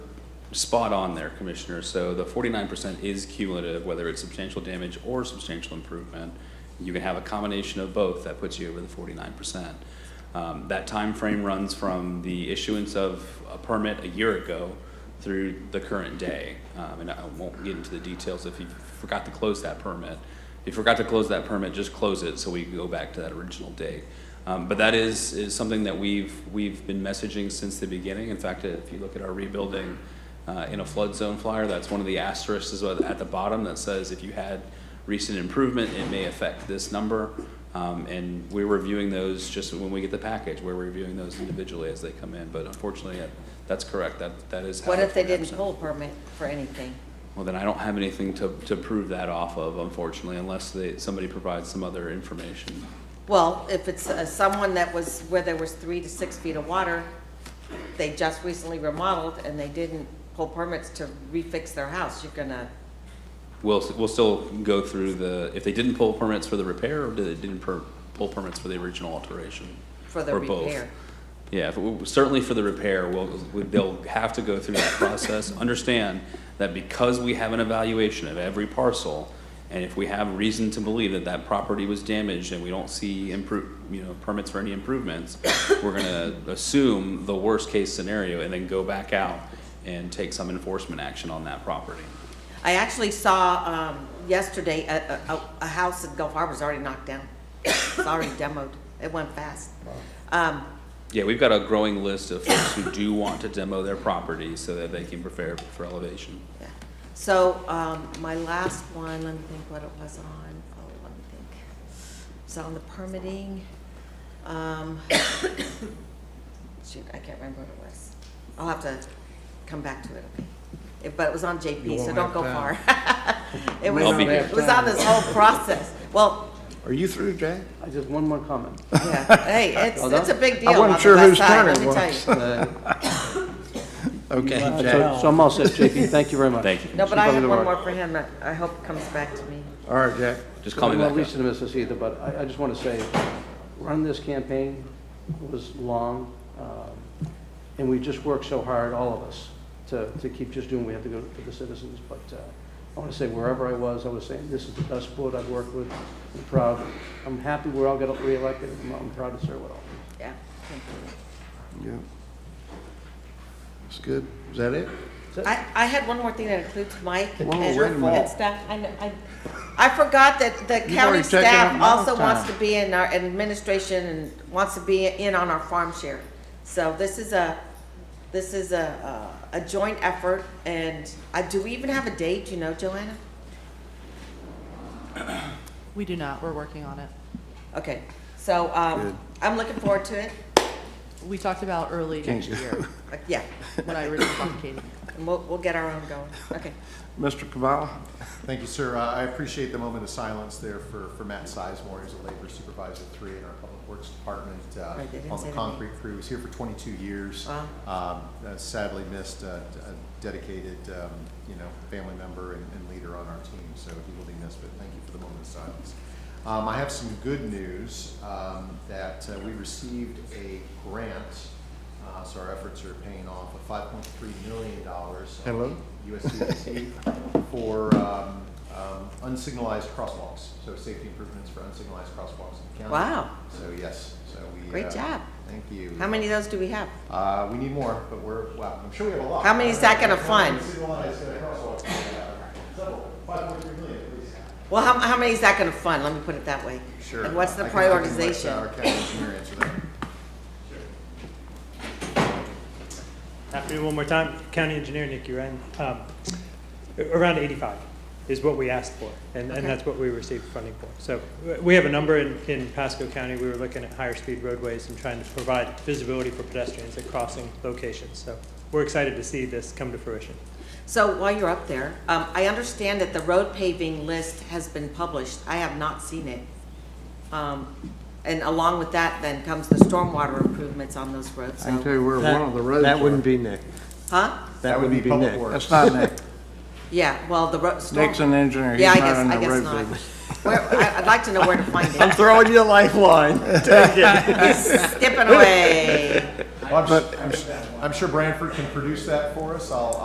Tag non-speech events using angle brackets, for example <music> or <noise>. spot on there, Commissioner. So the forty-nine percent is cumulative, whether it's substantial damage or substantial improvement. You can have a combination of both that puts you over the forty-nine percent. Um, that timeframe runs from the issuance of a permit a year ago through the current day. Um, and I won't get into the details if you forgot to close that permit. If you forgot to close that permit, just close it so we can go back to that original date. Um, but that is, is something that we've, we've been messaging since the beginning. In fact, if you look at our rebuilding uh, in a flood zone flyer, that's one of the asterisks at at the bottom that says if you had recent improvement, it may affect this number. Um, and we're reviewing those just when we get the package, we're reviewing those individually as they come in. But unfortunately, that- that's correct, that, that is how. What the if they didn't 49% pull a permit for anything? well, then I don't have anything to, to prove that off of, unfortunately, unless they, somebody provides some other information. Well, if it's uh, someone that was, where there was three to six feet of water, they just recently remodeled and they didn't pull permits to refix their house, you're gonna, We'll, we'll still go through the, if they didn't pull permits for the repair, or did they didn't per, pull permits for the original alteration? for the Or both. repair. Yeah, if we- certainly for the repair, we'll, we- they'll have to go through that process. Understand that because we have an evaluation of every parcel, and if we have reason to believe that that property was damaged and we don't see improve, you know, permits for any improvements, we're gonna assume the worst-case scenario and then go back out and take some enforcement action on that property. I actually saw, um, yesterday, a, a- a, a house in Gulf Harbor's already knocked down. It's already demoed. It went fast. Um, Yeah, we've got a growing list of folks who do want to demo their property so that they can prepare for elevation. yeah. So, um, my last one, let me think what it was on. Oh, let me think. It's on the permitting. Um, <coughs> shoot, I can't remember what it was. I'll have to come back to it, okay? It- But it was on You JP, so won't don't have go far. <laughs> time. It was, I'll be it here. was on this whole process. Well, Are you through, Jay? I just, one more comment. <laughs> Yeah, hey, it's, Hold on. it's a big I deal on wasn't the sure west whose side, turn let it me tell was. you. Uh, Okay, So Jay. so I'm all set, JP, thank you very much. Thank you. No, but I Keep have up the one work. more for him, I I hope it comes back to me. All right, Jay. Just call me Well, back Lisa up. didn't miss us either, but I, I just want to say, run this campaign was long, um, and we just worked so hard, all of us, to, to keep just doing what we have to go for the citizens. But uh, I want to say, wherever I was, I was saying, this is the best board I've worked with, I'm proud. I'm happy we all got reelected, I'm- I'm proud to serve with all. Yeah, thank Yeah. That's good. Is that it? you. I, I had one more thing that includes Mike and Whoa, wait a minute. and staff, I, know- I, I forgot that the You've county already taken up staff my also wants time. to be in our administration and wants to be in on our farm share. So this is a, this is a, a a joint effort, and I, do we even have a date, you know, Joanna? <clears throat> We do not, we're working on it. Okay, so, Good. um, I'm looking forward to it, We talked about early next year, Like, yeah. when I originally talked to Katie. And we'll, we'll get our own going. Okay. Mr. Cavalla? Thank you, sir. Uh, I appreciate the moment of silence there for, for Matt Sizemore, who's a labor supervisor three in our Public Works Department uh, Right, they didn't on say the the concrete crew. He was here for 22 years. Wow. Um, uh, Sadly missed a a dedicated, um, you know, family member and and leader on our team, so he will be missed, but thank you for the moment of silence. Um, I have some good news um, that uh, we received a grant, uh, so our efforts are paying off, of $5.3 million. Hello? <laughs> USCDC for um, um, unsignalized crosswalks, so safety improvements for unsignalized crosswalks in the Oh. county. Wow. So yes, so we. Great uh, job. Thank you. How many of those do we have? Uh, we need more, but we're, wow, I'm sure we have a lot. How many is that gonna fund? Unsignalized uh, crosswalks, uh, several, 5.3 million at least. Well, how, how many is that gonna fund? Let me put it that way. Sure. And what's the I can- I can let, uh, Our prioritization? county engineer answer that. After one more time, County Engineer Nikki Wren, um, around 85 is what we asked for, and, Okay. and that's what we received funding for. So w- we have a number in, in Pasco County, we were looking at higher speed roadways and trying to provide visibility for pedestrians at crossing locations. So we're excited to see this come to fruition. So while you're up there, um, I understand that the road paving list has been published. I have not seen it. Um, and along with that then comes the stormwater improvements on those roads, I can tell so. you where one of the roads That are. wouldn't be Nick. Huh? That would be public Nick. works. That's not <laughs> Nick. Yeah, well, the road, storm. Nick's an engineer. He's Yeah, I not guess, in I the guess road not. business. Where, I, I'd like to know where to find I'm it. <laughs> throwing you a lifeline. Skipping away. Well, I'm s- I'm s- I'm sure Branford can produce that for us. I'll,